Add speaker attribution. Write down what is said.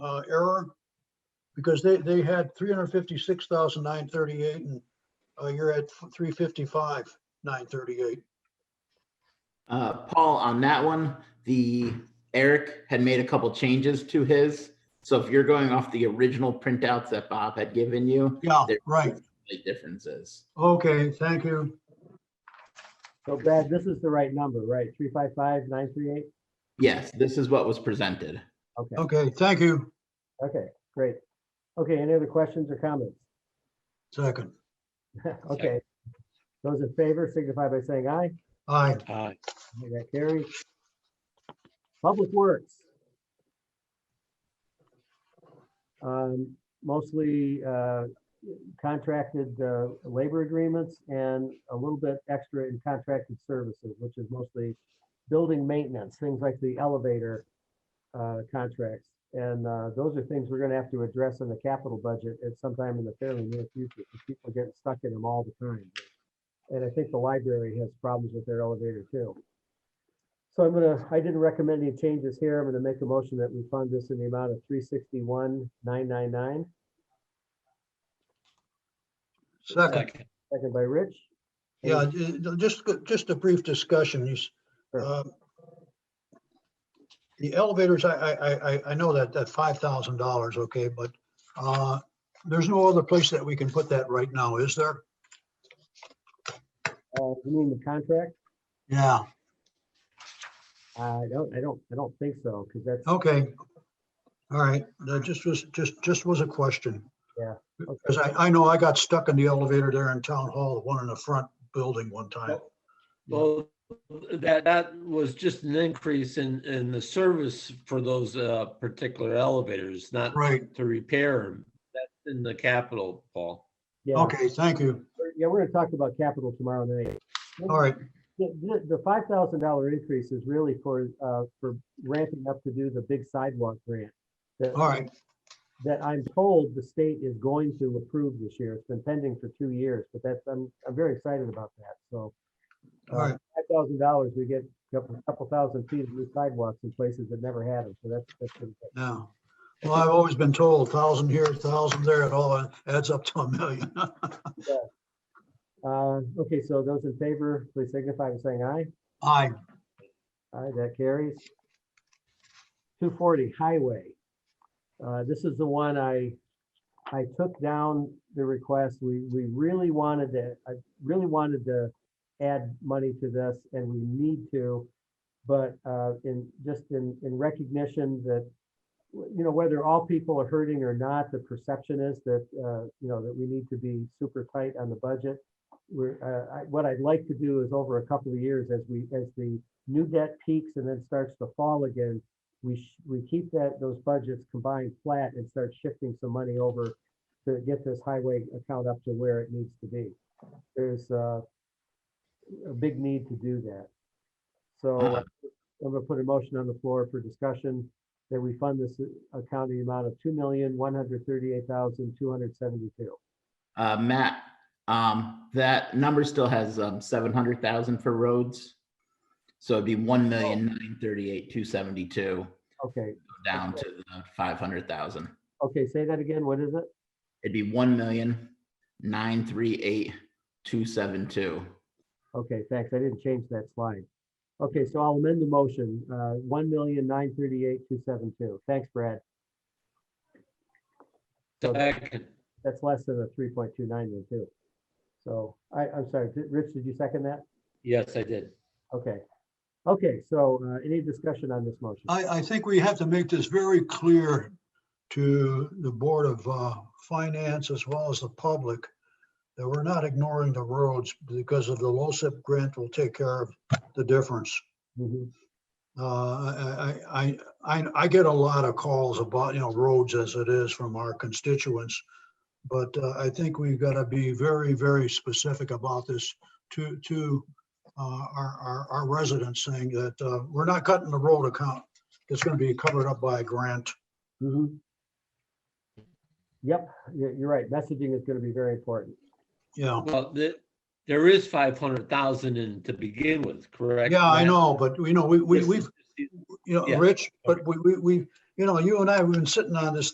Speaker 1: uh, because they, they had three hundred fifty-six thousand nine thirty-eight and uh, you're at three fifty-five, nine thirty-eight.
Speaker 2: Uh, Paul, on that one, the Eric had made a couple changes to his. So if you're going off the original printouts that Bob had given you,
Speaker 1: Yeah,
Speaker 2: There-
Speaker 1: right.
Speaker 2: big differences.
Speaker 1: Okay, thank you.
Speaker 3: So Brad, this is the right number, right? Three five five nine three eight?
Speaker 2: Yes, this is what was presented.
Speaker 3: Okay,
Speaker 1: Okay, thank you.
Speaker 3: okay, great. Okay, any other questions or comments?
Speaker 1: Second.
Speaker 3: Okay. Those in favor signify by saying aye.
Speaker 1: Aye.
Speaker 4: Aye.
Speaker 3: Aye, That carries. Public Works. Um, Mostly uh, contracted uh, labor agreements and a little bit extra in contracted services, which is mostly building maintenance, things like the elevator uh, contracts. And uh, those are things we're going to have to address in the capital budget at sometime in the fairly near future. because People are getting stuck in them all the time. And I think the library has problems with their elevator too. So I'm gonna, I didn't recommend any changes here. I'm gonna make a motion that we fund this in the amount of three sixty-one, nine nine nine.
Speaker 1: Second.
Speaker 4: Second.
Speaker 3: Second by Rich. Any-
Speaker 1: Yeah, ju- ju- just, just a brief discussion. These,
Speaker 3: Sure.
Speaker 1: um, The elevators, I, I, I- I, I know that, that five thousand dollars, okay, but, uh, there's no other place that we can put that right now, is there?
Speaker 3: Uh, you mean the contract?
Speaker 1: Yeah,
Speaker 3: I don't, I don't, I don't think so, because that's,
Speaker 1: okay. All right, that just was, just, just was a question.
Speaker 3: Yeah, okay.
Speaker 1: Because I, I know I got stuck in the elevator there in Town Hall, the one in the front building one time.
Speaker 3: Oh.
Speaker 4: Well, that, that was just an increase in, in the service for those uh, particular elevators, not
Speaker 1: Right,
Speaker 4: to repair them. That's in the capital, Paul.
Speaker 3: yeah,
Speaker 1: okay, thank you.
Speaker 3: yeah, we're gonna talk about capital tomorrow night.
Speaker 1: All right,
Speaker 3: The, the, the five thousand dollar increase is really for, uh, for ramping up to do the big sidewalk grant. that-
Speaker 1: all right,
Speaker 3: that I'm told the state is going to approve this year. It's been pending for two years, but that's, I'm, I'm very excited about that, so. uh,
Speaker 1: all right.
Speaker 3: Five thousand dollars, we get a couple, couple thousand feet of new sidewalks in places that never had them, so that's, that's. pretty good.
Speaker 1: Yeah. Well, I've always been told thousand here, thousand there, it all adds up to a million.
Speaker 3: Uh, okay, so those in favor, please signify by saying aye.
Speaker 1: Aye,
Speaker 3: Aye, that carries. Two forty highway. Uh, this is the one I, I took down the request. We, we really wanted to, I really wanted to add money to this and we need to. But, uh, in, just in, in recognition that, w- you know, whether all people are hurting or not, the perception is that, uh, you know, that we need to be super tight on the budget. We're, uh, I, what I'd like to do is over a couple of years as we, as the new debt peaks and then starts to fall again, we, sh- we keep that, those budgets combined flat and start shifting some money over to get this highway account up to where it needs to be. There's uh, a big need to do that. So
Speaker 2: Uh-huh.
Speaker 3: I'm gonna put a motion on the floor for discussion that we fund this uh, account in the amount of two million, one hundred thirty-eight thousand, two hundred seventy-two.
Speaker 2: Uh, Matt, um, that number still has, um, seven hundred thousand for roads. So it'd be one million, nine thirty-eight, two seventy-two,
Speaker 3: Okay,
Speaker 2: down to the five hundred thousand.
Speaker 3: okay, say that again. What is it?
Speaker 2: It'd be one million, nine three eight, two seven two.
Speaker 3: Okay, thanks. I didn't change that slide. Okay, so I'll amend the motion, uh, one million nine thirty-eight two seven two. Thanks, Brad. So
Speaker 4: Second.
Speaker 3: that's less than a three point two nine there too. So I, I'm sorry, did- Rich, did you second that?
Speaker 4: Yes, I did.
Speaker 3: Okay. Okay, so, uh, any discussion on this motion?
Speaker 1: I, I think we have to make this very clear to the Board of uh, Finance as well as the public that we're not ignoring the roads because of the LoSiP grant will take care of the difference.
Speaker 3: Mhm,
Speaker 1: Uh, I, I, I, I get a lot of calls about, you know, roads as it is from our constituents. But uh, I think we've got to be very, very specific about this to, to uh, our, our, our residents saying that uh, we're not cutting the road account. It's going to be covered up by a grant.
Speaker 3: mhm. Yep, you're, you're right. Messaging is gonna be very important.
Speaker 1: Yeah.
Speaker 4: Well, the, there is five hundred thousand in to begin with, correct?
Speaker 1: Yeah, I
Speaker 4: Matt?
Speaker 1: know, but you know, we, we,
Speaker 4: This
Speaker 1: we've,
Speaker 4: is-
Speaker 1: you know,
Speaker 4: Yeah.
Speaker 1: Rich, but we, we, we, you know, you and I, we've been sitting on this